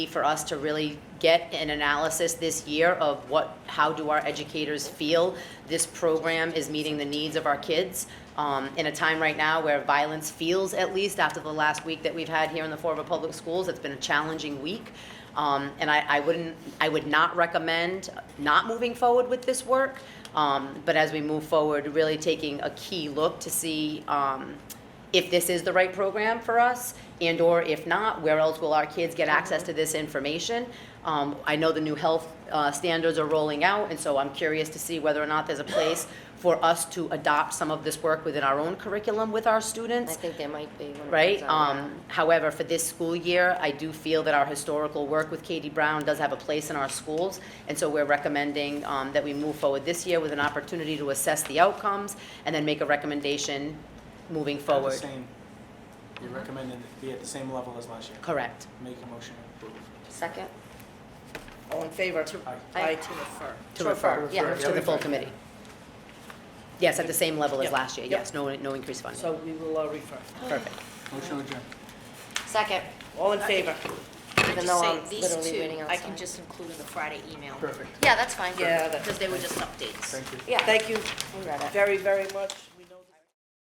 for us to really get an analysis this year of what, how do our educators feel this program is meeting the needs of our kids? Um, in a time right now where violence feels, at least after the last week that we've had here in the Fort River Public Schools, it's been a challenging week. Um, and I, I wouldn't, I would not recommend not moving forward with this work. Um, but as we move forward, really taking a key look to see, um, if this is the right program for us, and/or if not, where else will our kids get access to this information? Um, I know the new health uh, standards are rolling out, and so I'm curious to see whether or not there's a place for us to adopt some of this work within our own curriculum with our I students, think there might be. one of right? those on there. Um, However, for this school year, I do feel that our historical work with Katie Brown does have a place in our schools, and so we're recommending um, that we move forward this year with an opportunity to assess the outcomes, and then make a recommendation moving At the forward. same- You recommended it be at the same level as last year. Correct. Make a motion to approve. Second? All in favor? Aye. Aye to refer. To refer, refer, Yeah, yeah. to the full committee. Yes, at the same level as Yep, last year, yep. yes, no, no increased funding. So we will uh, refer. Perfect. Motion adjourned. second, All in favor? even though I'm literally waiting outside. I can just include in the Friday email, Perfect, Yeah, that's fine. Yeah, that- because they were just updates. thank you. Yeah, Thank you we read it. very, very much.